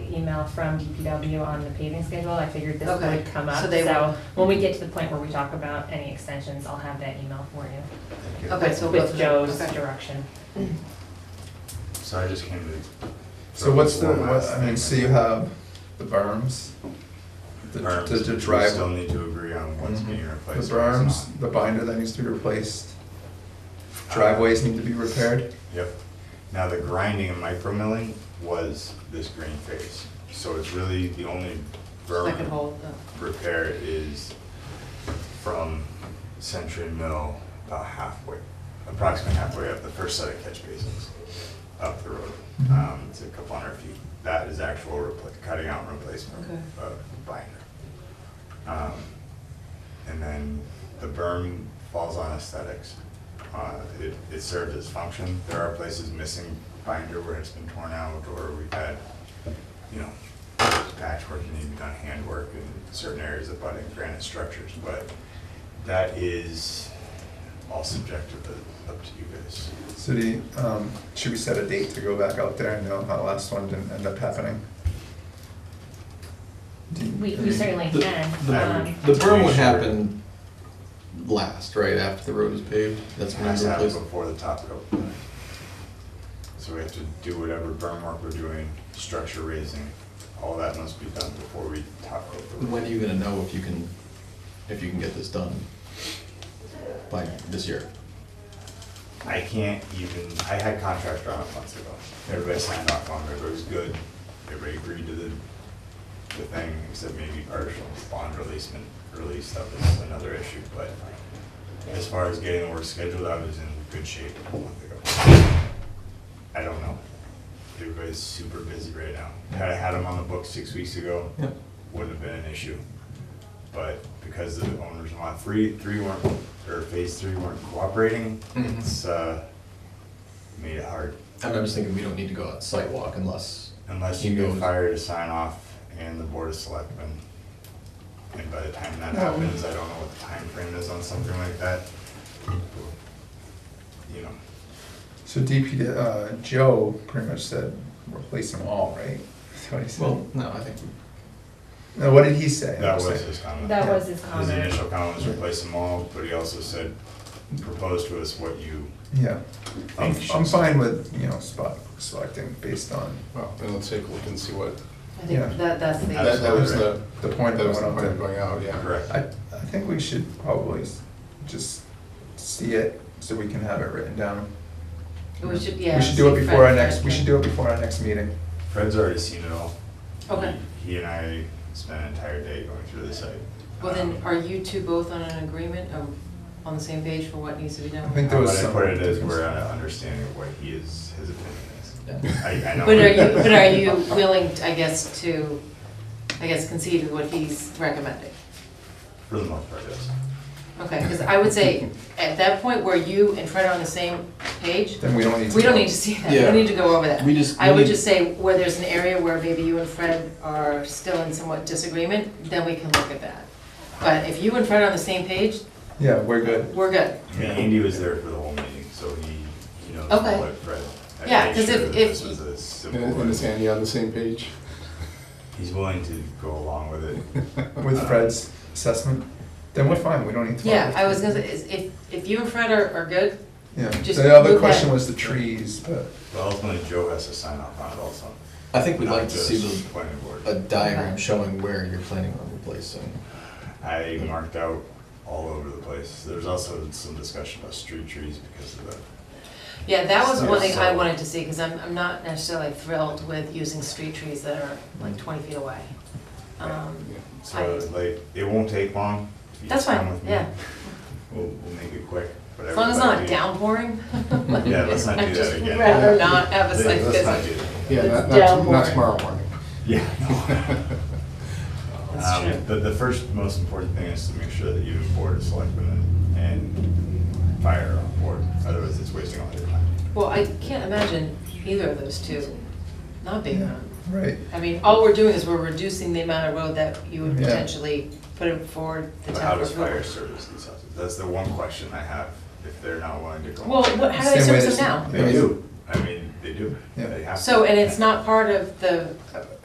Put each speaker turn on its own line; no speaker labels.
email from DPW on the paving schedule, I figured this
Okay,
would come up.
so they will-
So when we get to the point where we talk about any extensions, I'll have that email for you.
Thank you.
Okay, so we'll go
With
through-
Joe's
okay.
direction.
So I just came to.
So what's the,
Format,
what's, I mean,
think.
so you have the berms, the,
Berms,
the, the
we
drive. Mm-hmm.
Still need to agree on what's being replaced.
The
or what's not.
berms, the binder that needs to be replaced,
Uh,
driveways need to be repaired.
Yep. Now, the grinding and micro milling was this green phase. So it's really the only
Second
berm
hole, uh,
repair is from Century Mill about halfway, approximately halfway up the first set of catch basins up the road.
Mhm.
Um, It's a couple hundred feet. That is actual repla- cutting out and replacement
Okay.
of binder. Um, And then the berm falls on aesthetics. Uh, It, it served its function. There are places missing binder where it's been torn out or we've had, you know, patchwork that need to be done, handwork in certain areas of budding granite structures. But that is all subjective, uh, up to you guys.
So do, you, um, should we set a date to go back out there? I know that last one didn't end up happening. Do you-
We, we certainly
The-
can.
the-
um,
The berm would happen last, right after the road is paved. That's when
Has
the
to happen
replacement.
before the top coat. So we have to do whatever berm work we're doing, structure raising, all that must be done before we top coat the
When
roof.
are you gonna know if you can, if you can get this done by this year?
I can't even, I had contracts drawn up months ago. Everybody signed off on it, everybody was good, everybody agreed to the, the thing, except maybe partial bond releasement, release stuff is another issue, but as far as getting the work scheduled, I was in good shape a month ago. I don't know. Everybody's super busy right now. Had I had them on the book six weeks ago,
Yep.
wouldn't have been an issue. But because the owners want three, three weren't, or phase three weren't cooperating,
Mhm.
it's, uh, made it hard.
I'm I'm just thinking we don't need to go out sidewalk unless.
Unless
he
you get
goes-
fired to sign off and the board of selectmen. And by the time that
No.
happens, I don't know what the time frame is on something like that. You know,
So DP, uh, Joe pretty much said, replace them all, right? That's what he said.
Well, no, I think,
Now, what did he say?
that was his comment.
That was his
His
comment.
initial comment was replace them all, but he also said, propose to us what you
Yeah, I'm,
think should.
I'm fine with, you know, spot, selecting based on
Well, then let's take a look and see what,
I
Yeah.
think that, that's the.
that that was the,
the point.
that was
of
the
going
point
out
of
there.
going out, yeah.
Correct.
I, I think we should probably s- just see it so we can have it written down.
We should, yeah.
We should do it
see
before our
Fred's
next, we
thing.
should do it before our next meeting.
Fred's already seen it all.
Okay,
He and I spent an entire day going through the site.
well then,
Um,
are you two both on an agreement, or on the same page for what needs to be done?
I think
How
there was
about I
some
put it as
difference.
we're on an understanding of what he is, his opinion is.
yeah.
I, I know.
But are you, but are you willing, I guess, to, I guess concede with what he's recommending?
For the most part, yes.
Okay, because I would say, at that point where you and Fred are on the same page,
Then we don't need to.
we don't need to see that, we
Yeah.
don't need to go over that.
We just-
I
we
would
need-
just say, where there's an area where maybe you and Fred are still in somewhat disagreement, then we can look at that. But if you and Fred are on the same page,
Yeah, we're good.
we're good.
I mean, Andy was there for the whole meeting, so he, he knows
Okay.
what Fred. I
Yeah,
made
'cause
sure
if-
that
if-
This was a
And and is
simple,
Andy on the same page?
he's willing to go along with it.
With Fred's assessment, then we're fine, we don't need to. follow
Yeah,
it.
I was gonna say, is- if, if you and Fred are, are good,
Yeah,
just
the other
look
question
at-
was the trees, but
But ultimately, Joe has to sign off on it also.
I think we'd
not
like to see
just
the,
Planning board.
a diagram
Okay.
showing where you're planning on replacing.
I marked out all over the place. There's also some discussion about street trees because of the
yeah, that was one thing I
So-
wanted to see, because I'm, I'm not necessarily thrilled with using street trees that are like twenty feet away. Um,
Yeah.
So like, it won't take long. if you
That's
just come
fine,
with me.
yeah.
We'll, we'll make it quick. but
As long as it's not
everybody-
downpouring.
Yeah, let's not do
I'd
that
just
again.
rather not have a
Let's
site
not
visit.
do that.
Yeah, not,
down
not
more.
not tomorrow morning.
Yeah.
That's
Um,
true.
The, the first most important thing is to make sure that you and board of selectmen and fire are on board, otherwise it's wasting all your time.
Well, I can't imagine either of those two not being on.
right,
I mean, all we're doing is we're reducing the amount of road that you would
Yeah.
potentially put it forward the
But how
town
does
was
fire
road.
service these houses? That's the one question I have, if they're not willing to go.
Well, what, how do they
Same way
service
they-
them
They
Yeah.
do, I mean, they do,
Yeah.
they
now?
have to.
So, and it's not part of the